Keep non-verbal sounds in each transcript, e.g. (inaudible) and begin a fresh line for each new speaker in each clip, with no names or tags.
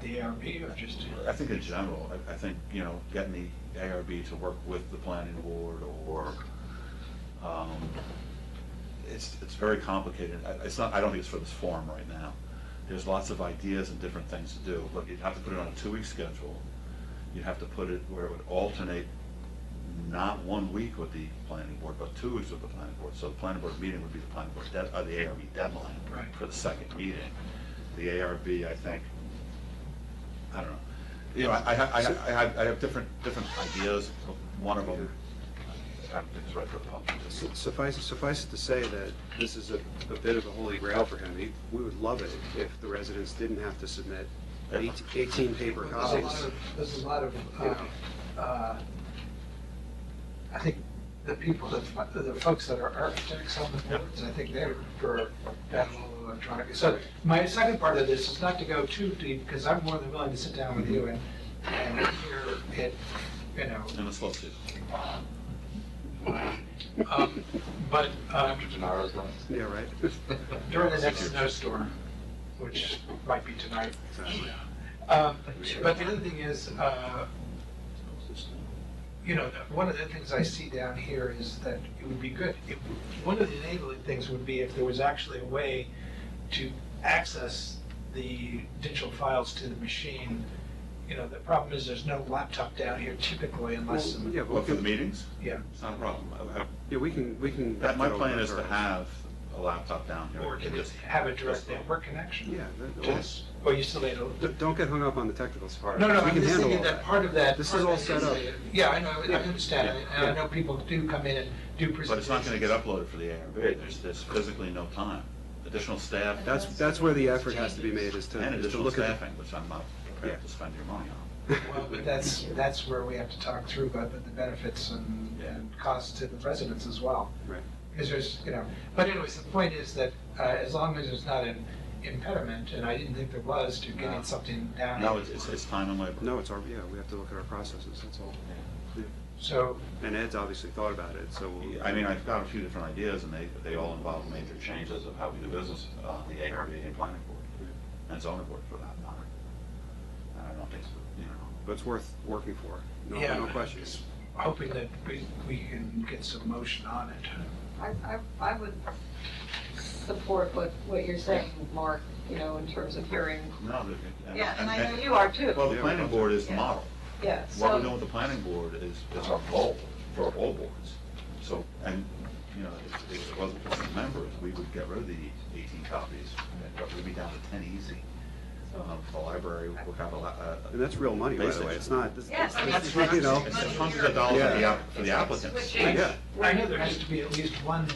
the ARB or just?
I think in general, I, I think, you know, getting the ARB to work with the planning board or, um, it's, it's very complicated. I- It's not, I don't think it's for this forum right now. There's lots of ideas and different things to do, but you'd have to put it on a two-week schedule. You'd have to put it where it would alternate not one week with the planning board, but two weeks with the planning board. So the planning board meeting would be the planning board, dead- uh, the ARB deadline
Right.
for the second meeting. The ARB, I think, I don't know. You know, I, I, I- I have, I have different, different ideas. One of them, I don't think it's right for the public.
Su- Suffice, suffice it to say that this is a, a bit of a holy grail for him. He- We would love it if the residents didn't have to submit eight- eighteen paper
There's a lot
copies.
of, there's a lot of, uh, uh, I think the people, that fi- the folks that are architects on the boards, I think they would prefer that whole electronic. So my second part of this is not to go too deep, because I'm more than willing to sit down with you and, and hear it, you know.
And the slow season.
Um, But um,
Yeah,
(laughs)
right?
during the next snowstorm, which might be tonight. Um, But the other thing is, uh, you know, the- one of the things I see down here is that it would be good, if- one of the enabling things would be if there was actually a way to access the digital files to the machine. You know, the problem is there's no laptop down here typically unless,
Well, Yeah, well,
What, for the meetings?
yeah.
It's not a problem. I- I-
yeah, we can, we can.
That, my
go
plan
over
is to
our-
have a laptop down here.
Or
and
can
just
just have a direct network connection?
Yeah, that-
Just- Or you still need a,
D- Don't get hung up on the technical part.
no, no,
We
I'm
can
just
handle
thinking
all
that part of that.
This
part
is all
of
set
that
up.
is the- Yeah, I know, I- I
Yeah.
understand,
Yeah.
and I know people do come in and do presentations.
But it's not gonna get uploaded for the ARB. There's, there's physically no time. Additional staff
That's, that's where the effort has to be made, is to,
and
is to
additional
look at.
staffing, which I'm not prepared to spend your money on.
(laughs)
Well, but that's, that's where we have to talk through about the the benefits and,
Yeah.
and costs to the residents as well.
Right.
Because there's, you know, but anyways, the point is that, uh, as long as there's not an impediment, and I didn't think there was, to
No.
getting something down.
No,
here.
it's, it's, it's time and labor.
No, it's our, yeah, we have to look at our processes, that's all.
So,
And Ed's obviously thought about it, so. we'll-
I mean, I've got a few different ideas, and they, they all involve major changes of how we do business on the ARB and planning board, and zoning board for that matter. And I don't think, you know,
But it's worth working for, no,
Yeah.
no questions.
hoping that we, we can get some motion on it.
I, I, I would support what, what you're saying, Mark, you know, in terms of hearing.
no. they-
Yeah, and I know you are
Well,
too,
the planning board is the model.
yeah,
What we're doing
so,
with the planning board is, is our goal for all boards. So, and, you know, if if it wasn't for the members, we would get rid of the eighteen copies, but we'd be down to ten easy. Um, The library would have a lot, uh,
And that's real money, by the
Basic.
way, it's not, this-
Yes, I mean,
this
it's
is, you know.
It's hundreds of dollars for the, app- for the applicants.
Switching.
Yeah.
I know there has to be at least one,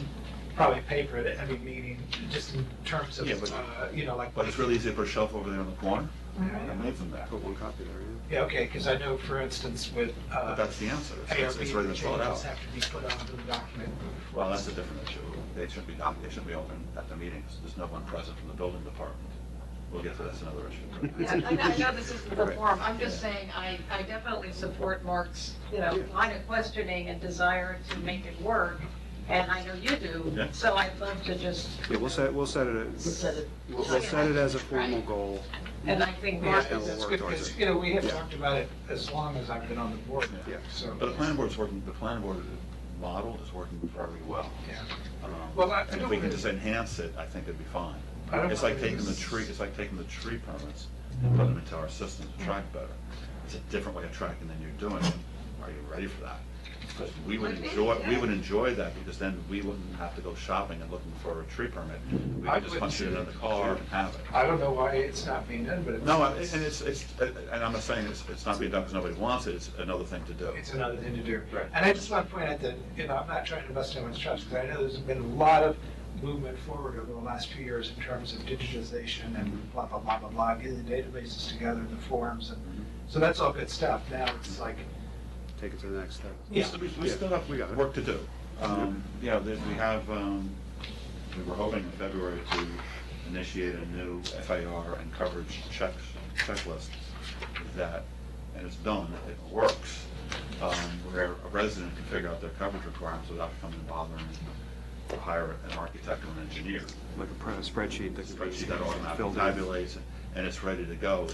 probably paper at every meeting, just in terms of,
Yeah, but-
uh, you know, like.
But it's really easy to put a shelf over there in the corner and
Yeah,
leave them there.
Put one copy there, yeah.
okay, because I know, for instance, with,
But
uh,
that's the answer. It's- It's,
ARB,
it's
the
ready to
changes
fill it out.
have to be put onto the document.
Well, that's a different issue. They should be, doc- they should be open at the meetings. There's no one present from the building department. We'll get to that, that's another issue.
yeah, I know, I know this isn't the forum, I'm just saying, I, I definitely support Mark's, you know, line of questioning and desire to make it work, and I know you do,
Yeah.
so I'd love to just.
Yeah, we'll set, we'll set it,
Set it.
we'll we'll set it as a formal goal.
And I think
Yeah,
Mark,
and we'll
that's
work
good,
towards
because,
it.
you know, we have
Yeah.
talked about it as long as I've been on the board,
Yeah.
so.
But the planning board's working, the planning board model is working very well.
Yeah.
Um,
Well, I- I
and
don't
If we can
really-
just enhance it, I think it'd be fine.
I don't
It's like
really-
taking the tree, it's like taking the tree permits and putting them into our system to track better. It's a different way of tracking than you're doing. it. Are you ready for that? Because we would
Would be,
enjoy, we
yeah.
would enjoy that because then we wouldn't have to go shopping and looking for a tree permit. We
I
could just
wouldn't
punch it
see
in
it.
the car and have it.
I don't know why it's not being done, but it's.
No, and it's, it's, and I'm not saying it's, it's not being done because nobody wants it, it's another thing to do.
It's another thing to do.
Right.
And I just want to point out that, you know, I'm not trying to bust anyone's chops, because I know there's been a lot of movement forward over the last few years in terms of digitization and blah, blah, blah, blah, blah, getting the databases together, the forums, and, so that's all good stuff. Now it's like,
Take it to the next step.
We
yeah,
still, we still have
We got it.
work to do. Um, You know, there's, we have, um, we were hoping in February to initiate a new FAR and coverage checks, checklist that, and it's done, it works, um, where a resident can figure out their coverage requirements without coming and bothering to hire an architect or an engineer.
Like a pro- a spreadsheet that can be
Spreadsheet that automatically
filled in.
tabulates, and it's ready to go